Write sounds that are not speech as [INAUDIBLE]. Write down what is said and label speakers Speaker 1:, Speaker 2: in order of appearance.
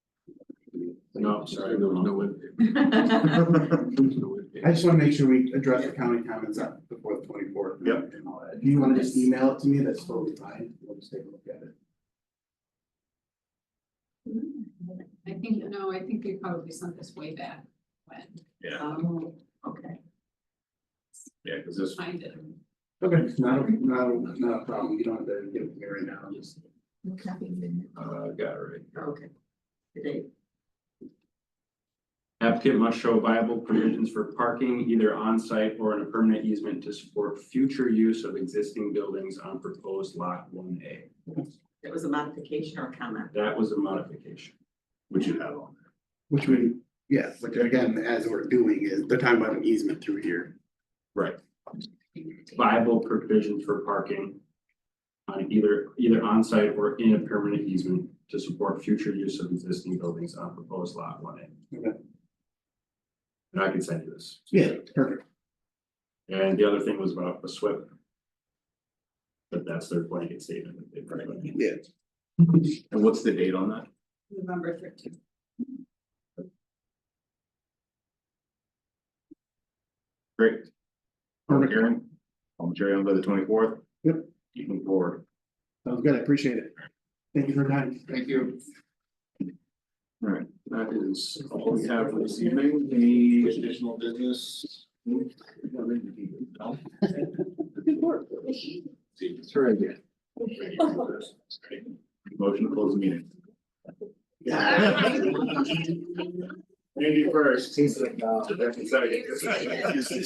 Speaker 1: No, I'm sorry, there was no way.
Speaker 2: [LAUGHS] I just wanna make sure we address the county comments up before the twenty fourth.
Speaker 1: Yep.
Speaker 2: And all that. Do you wanna just email it to me? That's totally fine. We'll just take a look at it.
Speaker 3: I think, no, I think we probably sent this way back when.
Speaker 1: Yeah,
Speaker 3: Um, okay,
Speaker 1: yeah, because this,
Speaker 3: find it.
Speaker 2: Okay. It's Not, a- not, a- not a problem. You don't have to give it to me right now. Just
Speaker 1: uh, got it right.
Speaker 3: Okay. Today.
Speaker 4: Applicant must show viable provisions for parking either on site or in a permanent easement to support future use of existing buildings on proposed lot one A.
Speaker 5: It was a modification or a comment.
Speaker 4: That was a modification.
Speaker 1: Would you have on?
Speaker 2: Which we, yes, which again, as we're doing is, they're talking about an easement through here.
Speaker 4: Viable provisions for parking on either, either on site or in a permanent easement to support future use of existing buildings on proposed lot one A.
Speaker 2: Okay.
Speaker 4: And I can send you this.
Speaker 2: Yeah, perfect.
Speaker 4: And the other thing was about the SWIP. But that's their blanket statement that they've provided.
Speaker 2: Yeah.
Speaker 1: And what's the date on that?
Speaker 3: November thirteenth.
Speaker 1: Great. Public
Speaker 2: Perfect.
Speaker 1: hearing. Um, Jerry, on by the twenty fourth.
Speaker 2: Yep.
Speaker 1: Keeping forward.
Speaker 2: Sounds good. I appreciate it. Thank you for your time.
Speaker 1: Thank you. All right, that is all we have for this evening. Any additional business? No? See, it's her idea. Motion to close the meeting. Andy first. He's like, no.